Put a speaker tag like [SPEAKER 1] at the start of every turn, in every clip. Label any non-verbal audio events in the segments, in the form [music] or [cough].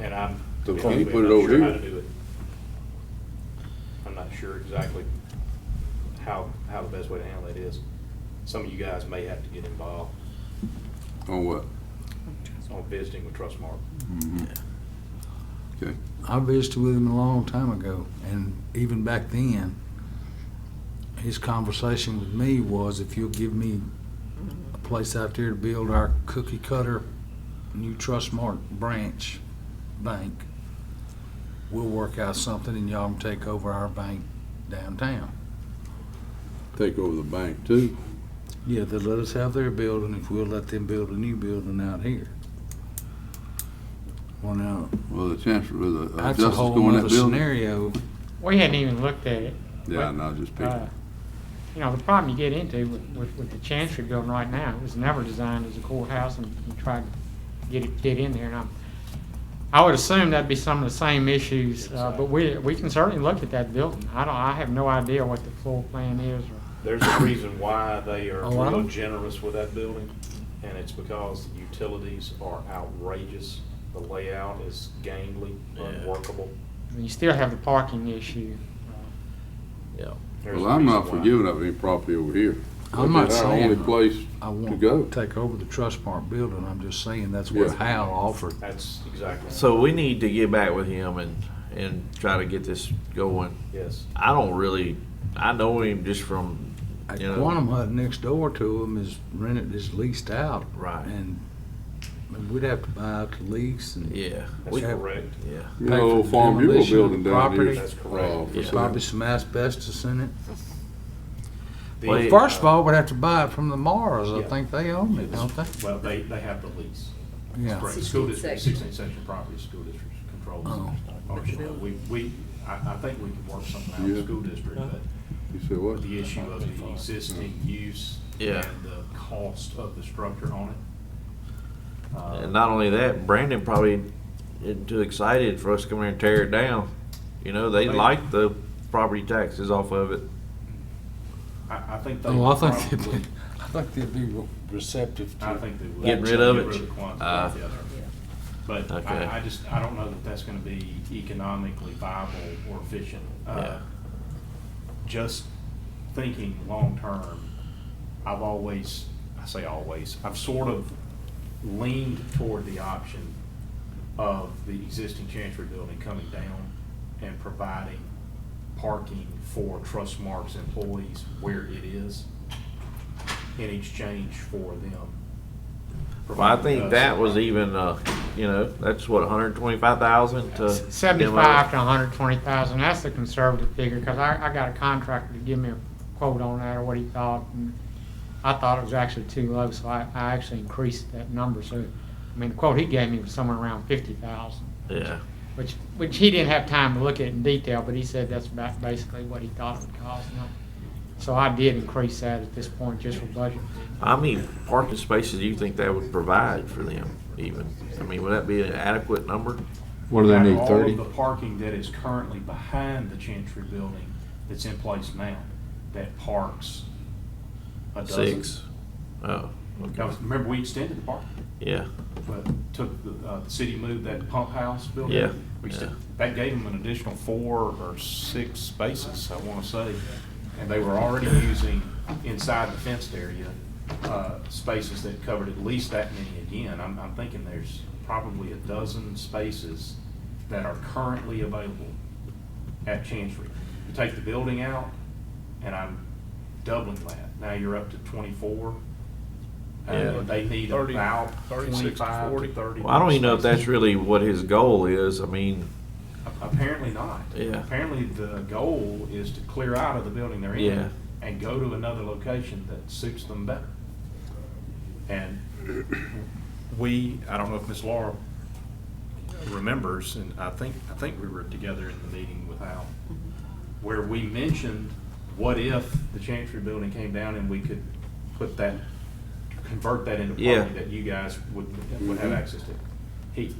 [SPEAKER 1] And I'm.
[SPEAKER 2] So
[SPEAKER 1] if
[SPEAKER 2] can
[SPEAKER 1] I'm
[SPEAKER 2] you
[SPEAKER 1] being
[SPEAKER 2] put it
[SPEAKER 1] not
[SPEAKER 2] over
[SPEAKER 1] sure how
[SPEAKER 2] here?
[SPEAKER 1] to do it. I'm not sure exactly how, how the best way to handle it is. Some of you guys may have to get involved
[SPEAKER 2] On what?
[SPEAKER 1] on visiting with Trustmark.
[SPEAKER 2] Okay,
[SPEAKER 3] I visited with him a long time ago, and even back then, his conversation with me was, if you'll give me a place out there to build our cookie cutter new Trustmark branch bank, we'll work out something and y'all can take over our bank downtown.
[SPEAKER 2] take over the bank too.
[SPEAKER 3] Yeah, they'll let us have their building if we'll let them build a new building out here. Well, now,
[SPEAKER 2] Well, the chancellor, the uh,
[SPEAKER 3] that's a
[SPEAKER 2] justice
[SPEAKER 3] whole
[SPEAKER 2] going in
[SPEAKER 3] nother
[SPEAKER 2] that building.
[SPEAKER 3] scenario.
[SPEAKER 4] We hadn't even looked at it.
[SPEAKER 2] Yeah, and I was just
[SPEAKER 4] Uh,
[SPEAKER 2] picking.
[SPEAKER 4] You know, the problem you get into with, with, with the Chancery building right now, it was never designed as a courthouse and you try to get it, get in there and I'm, I would assume that'd be some of the same issues, uh, but we, we can certainly look at that building. I don't, I have no idea what the floor plan is or.
[SPEAKER 1] There's a reason why they are
[SPEAKER 3] A
[SPEAKER 5] Oh,
[SPEAKER 3] lot?
[SPEAKER 1] real generous with that building, and it's because the utilities are outrageous. The layout is gangly, unworkable.
[SPEAKER 4] I mean, You still have the parking issue. uh,
[SPEAKER 5] Yeah.
[SPEAKER 1] There's
[SPEAKER 2] Well,
[SPEAKER 1] a
[SPEAKER 2] I'm not
[SPEAKER 1] reason why.
[SPEAKER 2] forgiving up any property over here.
[SPEAKER 3] I'm not
[SPEAKER 2] That's our
[SPEAKER 3] saying-
[SPEAKER 2] only place
[SPEAKER 3] I
[SPEAKER 2] to
[SPEAKER 3] won't
[SPEAKER 2] go.
[SPEAKER 3] take over the Trustmark building, I'm just saying that's what
[SPEAKER 2] Yeah.
[SPEAKER 3] Hal offered.
[SPEAKER 1] That's exactly,
[SPEAKER 5] So we need to get back with him and, and try to get this going.
[SPEAKER 1] yes.
[SPEAKER 5] I don't really, I know him just from,
[SPEAKER 3] At
[SPEAKER 5] you know.
[SPEAKER 3] Quantum Hut next door to him is rented, is leased out.
[SPEAKER 5] Right.
[SPEAKER 3] And I mean, we'd have to buy out the lease and
[SPEAKER 5] Yeah.
[SPEAKER 1] That's
[SPEAKER 5] we-
[SPEAKER 1] correct.
[SPEAKER 5] Yeah.
[SPEAKER 2] You
[SPEAKER 3] Pay
[SPEAKER 2] know,
[SPEAKER 3] for
[SPEAKER 2] old
[SPEAKER 3] the
[SPEAKER 2] Farm Bureau
[SPEAKER 3] demolition of
[SPEAKER 2] building
[SPEAKER 3] the
[SPEAKER 2] down here.
[SPEAKER 3] property.
[SPEAKER 1] That's correct.
[SPEAKER 2] uh, for
[SPEAKER 5] Yeah.
[SPEAKER 2] sale.
[SPEAKER 3] probably some asbestos in it.
[SPEAKER 1] The-
[SPEAKER 5] Well,
[SPEAKER 3] First of all, we'd have to buy it from the Mars, I
[SPEAKER 1] Yeah.
[SPEAKER 3] think they own it, don't they?
[SPEAKER 1] Well, they, they have the lease.
[SPEAKER 3] Yeah.
[SPEAKER 1] Correct.
[SPEAKER 6] 16
[SPEAKER 1] School district,
[SPEAKER 6] section.
[SPEAKER 1] sixteen section property, school districts controls.
[SPEAKER 3] Oh.
[SPEAKER 1] ownership. We, we, I, I think we can work something out with
[SPEAKER 2] Yeah.
[SPEAKER 1] the school district, but
[SPEAKER 2] You said what?
[SPEAKER 1] the issue of the existing use
[SPEAKER 5] Yeah.
[SPEAKER 1] and the cost of the structure on it. uh,
[SPEAKER 5] And not only that, Brandon probably isn't too excited for us to come here and tear it down. You know, they
[SPEAKER 1] They-
[SPEAKER 5] like the property taxes off of it.
[SPEAKER 1] I, I think they.
[SPEAKER 3] Oh, I
[SPEAKER 1] would
[SPEAKER 3] think they'd
[SPEAKER 1] probably-
[SPEAKER 3] be, I think they'd be re- receptive to
[SPEAKER 1] I
[SPEAKER 3] it.
[SPEAKER 1] think they would.
[SPEAKER 5] Getting rid of it?
[SPEAKER 1] Get rid of the Quonset
[SPEAKER 5] Ah.
[SPEAKER 1] altogether. But
[SPEAKER 5] Okay.
[SPEAKER 1] I, I just, I don't know that that's gonna be economically viable or efficient. Uh,
[SPEAKER 5] Yeah.
[SPEAKER 1] Just thinking long-term, I've always, I say always, I've sort of leaned toward the option of the existing Chancery building coming down and providing parking for Trustmark's employees where it is in exchange for them.
[SPEAKER 5] Well, I
[SPEAKER 1] providing
[SPEAKER 5] think
[SPEAKER 1] us-
[SPEAKER 5] that was even, uh, you know, that's what, hundred and twenty-five thousand to.
[SPEAKER 4] Seventy-five to hundred twenty thousand, that's the conservative figure, because I, I got a contractor to give me a quote on that or what he thought. and I thought it was actually too low, so I, I actually increased that number, so, I mean, the quote he gave me was somewhere around fifty thousand,
[SPEAKER 5] Yeah,
[SPEAKER 4] which, which he didn't have time to look at in detail, but he said that's about basically what he thought it would cost. and I- So I did increase that at this point, just for budget.
[SPEAKER 5] how many parking spaces do you think that would provide for them even? I mean, would that be an adequate number?
[SPEAKER 7] What do they
[SPEAKER 1] Out of
[SPEAKER 7] need, thirty?
[SPEAKER 1] All of the parking that is currently behind the Chantry building that's in place now, that parks a dozen.
[SPEAKER 5] Six? Oh,
[SPEAKER 1] That
[SPEAKER 5] okay,
[SPEAKER 1] was- Remember, we extended the park,
[SPEAKER 5] yeah,
[SPEAKER 1] but took, the, uh, the city moved that pump house building.
[SPEAKER 5] Yeah,
[SPEAKER 1] We
[SPEAKER 5] yeah.
[SPEAKER 1] extended- That gave them an additional four or six spaces, I wanna say, and they were already using inside the fenced area, uh, spaces that covered at least that many again. I'm, I'm thinking there's probably a dozen spaces that are currently available at Chancery. You take the building out, and I'm doubling that. Now you're up to twenty-four.
[SPEAKER 5] Yeah.
[SPEAKER 1] And they need about twenty-five to thirty.
[SPEAKER 5] Well, I don't even know if that's really what his goal is, I mean,
[SPEAKER 1] Apparently not.
[SPEAKER 5] Yeah.
[SPEAKER 1] Apparently the goal is to clear out of the building they're
[SPEAKER 5] Yeah.
[SPEAKER 1] in and go to another location that suits them better. And we, I don't know if Ms. Laura remembers, and I think, I think we were together in the meeting with Al, where we mentioned, what if the Chancery building came down and we could put that, convert that into
[SPEAKER 5] Yeah. Mm-hmm.
[SPEAKER 1] parking that you guys would, would have access to? He,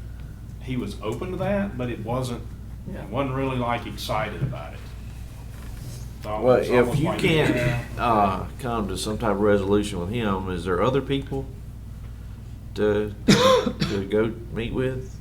[SPEAKER 1] he was open to that, but it wasn't, wasn't really like excited about it. So
[SPEAKER 5] well,
[SPEAKER 1] it's almost
[SPEAKER 5] if you
[SPEAKER 1] like- [laughs]
[SPEAKER 5] can't, uh, come to some type of resolution with him, is there other people to, to go meet with?